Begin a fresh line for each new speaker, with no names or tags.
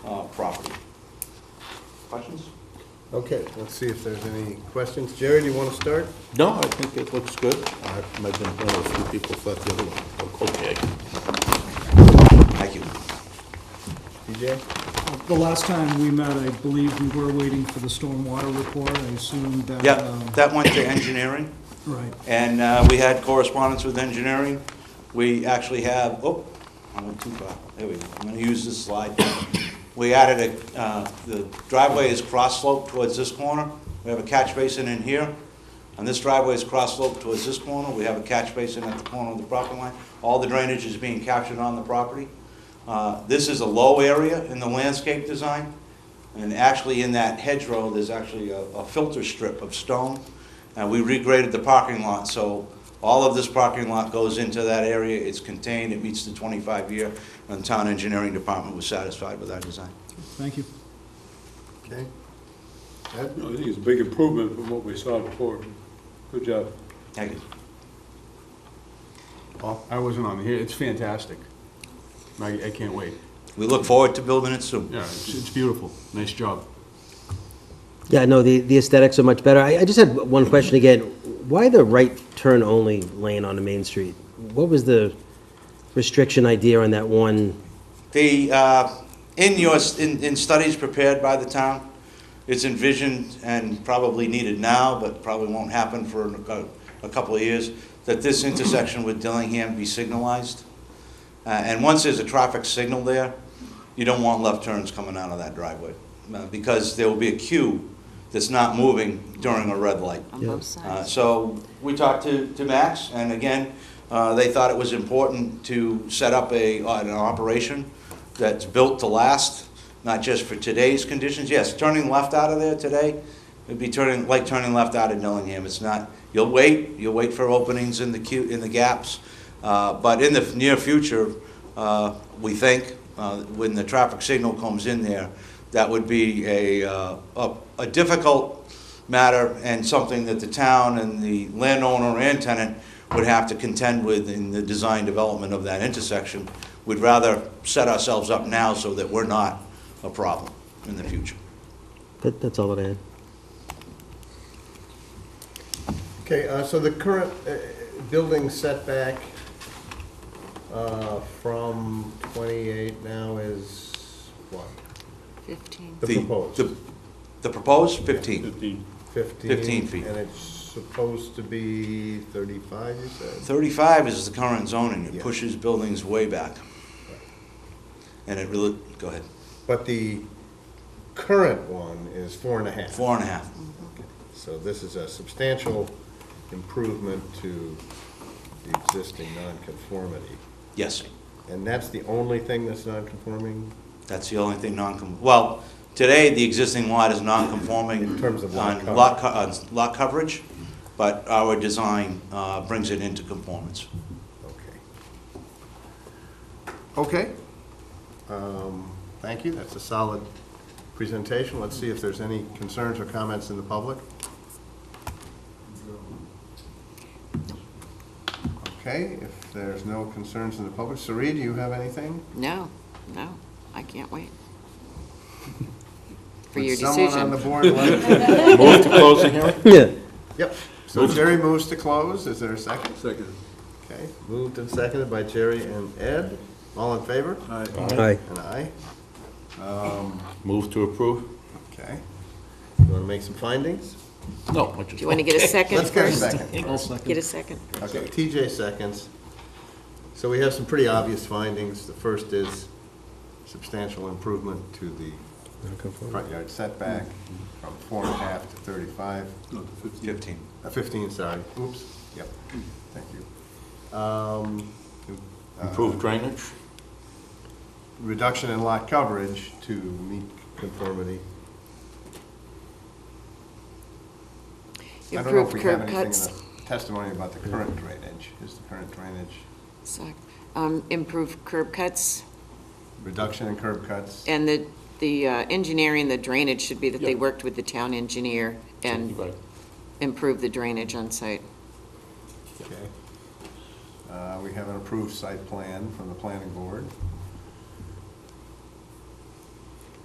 uh, property. Questions?
Okay, let's see if there's any questions. Jerry, do you want to start?
No, I think it looks good. I might have been one of the few people who thought the other one looked okay.
Thank you.
DJ?
The last time we met, I believe we were waiting for the stormwater report. I assume that.
Yeah,
um,
that went to engineering,
Right.
and uh, we had correspondence with engineering. We actually have, oh, I went too far, there we go, I'm gonna use this slide. We added a, uh, the driveway is cross sloped towards this corner, we have a catch basin in here, and this driveway is cross sloped towards this corner, we have a catch basin at the corner of the property line. All the drainage is being captured on the property. Uh, This is a low area in the landscape design, and actually in that hedgerow, there's actually a a filter strip of stone, and we regraded the parking lot, so all of this parking lot goes into that area, it's contained, it meets the 25-year, and the town engineering department was satisfied with our design.
Thank you.
Okay.
No, I think it's a big improvement from what we saw before. Good job.
Thank you.
I wasn't on here, it's fantastic. I, I can't wait.
We look forward to building it soon.
Yeah, it's, it's beautiful, nice job.
Yeah, no, the, the aesthetics are much better. I, I just had one question again. Why the right turn only lane on the main street? What was the restriction idea on that one?
The, uh, in your, in, in studies prepared by the town, it's envisioned and probably needed now, but probably won't happen for a cou- a couple of years, that this intersection with Dillingham be signalized. Uh, And once there's a traffic signal there, you don't want left turns coming out of that driveway, uh, because there will be a queue that's not moving during a red light.
on both sides.
Uh, So we talked to, to Max, and again, uh, they thought it was important to set up a, uh, an operation that's built to last, not just for today's conditions. Yes, turning left out of there today, it'd be turning, like turning left out of Dillingham. It's not, you'll wait, you'll wait for openings in the queue, in the gaps. Uh, But in the near future, uh, we think, uh, when the traffic signal comes in there, that would be a, uh, a a difficult matter and something that the town and the landowner and tenant would have to contend with in the design development of that intersection. We'd rather set ourselves up now so that we're not a problem in the future.
That, that's all that I had.
Okay, uh, so the current uh, building setback uh, from 28 now is what?
15.
Uh, The proposed.
the- The proposed, 15.
Fifteen.
15?
15 feet.
And it's supposed to be 35, you said?
35 is the current zoning, it
Yeah.
pushes buildings way back. And it really, go ahead,
But the current one is four and a half.
four and a half.
So this is a substantial improvement to the existing nonconformity.
Yes,
And that's the only thing that's nonconforming?
that's the only thing non, well, today, the existing lot is non-conforming.
In terms of lot
on
coverage.
lot co- on lot coverage, but our design uh, brings it into conformance.
Okay. Okay. Um, Thank you, that's a solid presentation. Let's see if there's any concerns or comments in the public. Okay, if there's no concerns in the public, Sari, do you have anything?
No, no, I can't wait. For your
Would someone on the
decision.
board like?
Move to close the hearing?
Yeah.
Yep, so Jerry moves to close, is there a second?
Second.
Okay, moved and seconded by Jerry and Ed, all in favor?
Aye.
Aye.
And aye,
Move to approve?
okay. You want to make some findings?
No, I just.
Do you want to get a second
Let's get a
first?
second.
I'll second.
Get a second.
Okay, TJ seconds. So we have some pretty obvious findings. The first is substantial improvement to the front yard setback from four and a half to thirty-five,
No, the fifteen.
15.
uh, fifteen, sorry, oops, yep, thank you. Um,
Improve drainage?
Reduction in lot coverage to meet conformity. I don't know if
Improved
we have
curb
anything in
cuts.
the testimony about the current drainage. Is the current drainage
Suck. Um, Improved curb cuts,
reduction in curb cuts?
and the, the uh, engineering, the drainage should be that they worked with the town engineer and
Right.
improved the drainage on site.
Okay. Uh, We have an approved site plan from the planning board.